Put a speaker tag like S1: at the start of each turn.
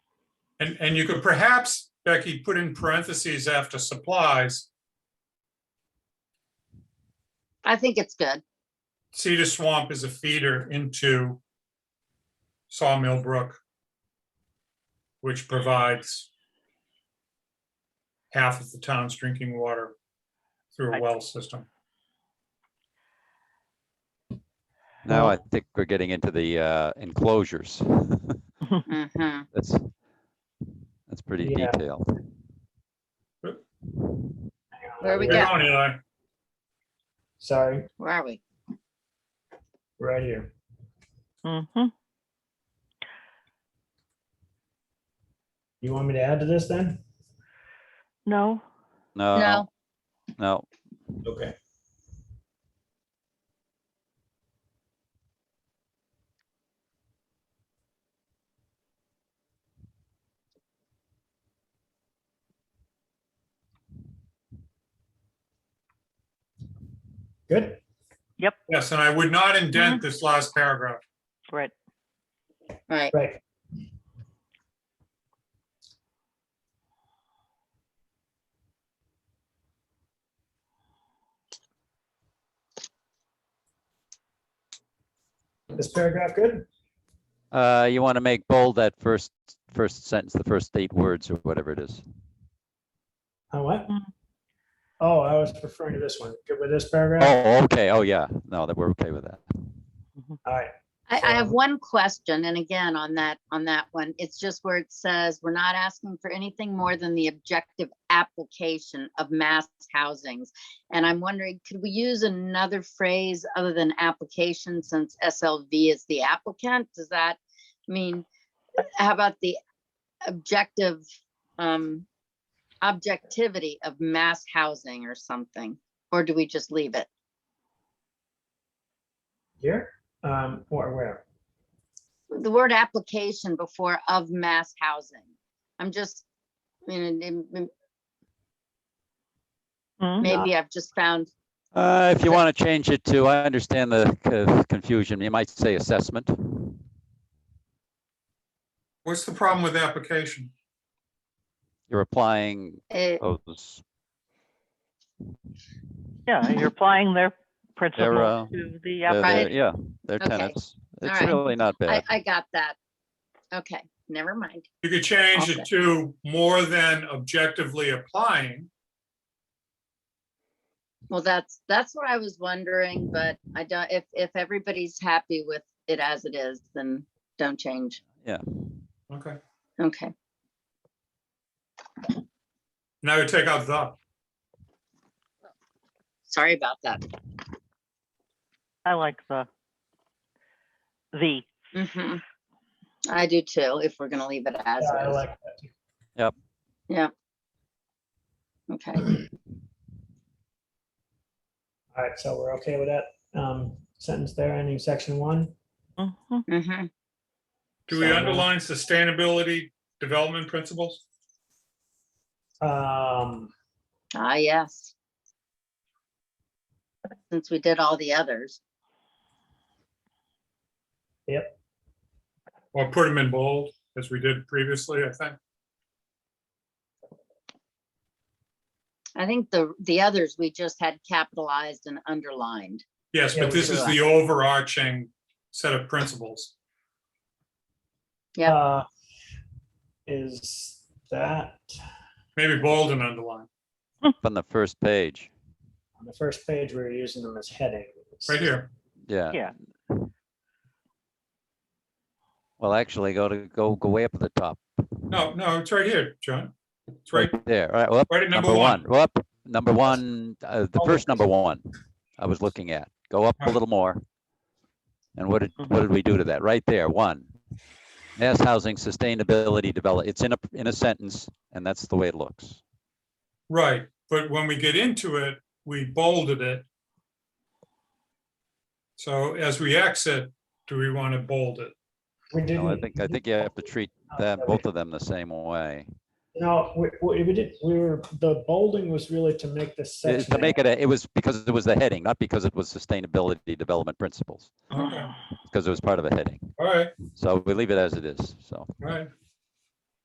S1: And, and you could perhaps, Becky, put in parentheses after supplies,
S2: I think it's good.
S1: Cedar Swamp is a feeder into Sawmill Brook, which provides half of the town's drinking water through a well system.
S3: Now I think we're getting into the uh, enclosures.
S2: Mhm.
S3: That's, that's pretty
S4: Yeah.
S3: detailed.
S2: Where we
S1: Hang
S2: go?
S1: on, Eli.
S4: Sorry,
S2: Where are we?
S4: right here.
S5: Mm-hmm.
S4: You want me to add to this then?
S5: No,
S3: No,
S2: No,
S3: no,
S4: Okay. Good.
S1: Yes, and I would not
S2: Mm-hmm.
S1: indent this last paragraph.
S5: right.
S2: right.
S4: Right. This paragraph good?
S3: Uh, you want to make bold that first, first sentence, the first eight words or whatever it is.
S4: On what?
S5: Mm.
S4: Oh, I was referring to this one. Good with this paragraph?
S3: Oh, okay. Oh, yeah. No, that we're okay with that.
S4: All right.
S2: I, I have
S4: So-
S2: one question, and again, on that, on that one, it's just where it says, we're not asking for anything more than the objective application of mass housings. And I'm wondering, could we use another phrase other than application since SLV is the applicant? Does that mean, how about the objective, um, objectivity of mass housing or something? Or do we just leave it?
S4: Here? Um, or where?
S2: the word application before of mass housing. I'm just, I mean, it- it-
S5: Mm.
S2: maybe I've just found,
S3: Uh, if you want to change it to, I understand the co- confusion. You might say assessment.
S1: What's the problem with application?
S3: You're applying
S2: eh,
S3: those,
S5: Yeah, you're applying their
S3: uh,
S5: principle to the
S3: they're-
S5: application.
S3: uh, they're- yeah, they're
S2: Okay.
S3: tenants. It's
S2: right.
S3: really not
S2: I,
S3: bad.
S2: I got that. Okay, never mind.
S1: You could change
S2: Okay.
S1: it to more than objectively applying.
S2: Well, that's, that's what I was wondering, but I don't, if, if everybody's happy with it as it is, then don't change.
S1: Okay.
S2: Okay,
S1: And I would take out the.
S2: sorry about that.
S5: I like the the
S2: Mhm. I do too, if we're gonna leave it as
S4: Yeah, I
S2: is.
S4: like that. too.
S2: Okay,
S4: All right, so we're okay with that um, sentence there, ending section one.
S5: mhm.
S2: Mhm.
S1: Do we
S4: So-
S1: underline sustainability development principles?
S4: Um,
S2: ah, yes. Since we did all the others.
S1: Or put them in bold, as we did previously, I think.
S2: I think the, the others, we just had capitalized and underlined.
S1: Yes,
S4: Yeah,
S1: but
S4: we
S1: this
S2: do
S1: is
S2: that.
S1: the overarching set of principles.
S2: Yep.
S4: uh, Is that
S1: Maybe bold and underline,
S3: On the first page.
S4: on the first page, we we're using them as headings.
S1: right here.
S3: Yeah.
S5: Yeah.
S3: Well, actually, go to, go, go way up at the top.
S1: No, no, it's right here, John. It's right,
S3: There, all right, well,
S1: right at
S3: number one, well, up, number one, uh, the
S4: Oh,
S3: first number one I was looking at. Go up a
S1: Right.
S3: little more. And what did, what did we do to that? Right there, one. Mass housing sustainability develop, it's in a, in a sentence, and that's the way it looks.
S1: Right, but when we get into it, we bolded it. So as we exit, do we want to bold it?
S4: We
S3: You know, I
S4: didn't. Oh,
S3: think, I think you have to treat them, both of them the same way.
S4: No, we, we we did, we were, the bolding was really to make this
S3: It-
S4: section.
S3: To make it, a- it was because it was the heading, not because it was sustainability development principles,
S1: Okay,
S3: because it was part of a heading.
S1: all right,
S3: So we leave it as it is, so.
S1: all right.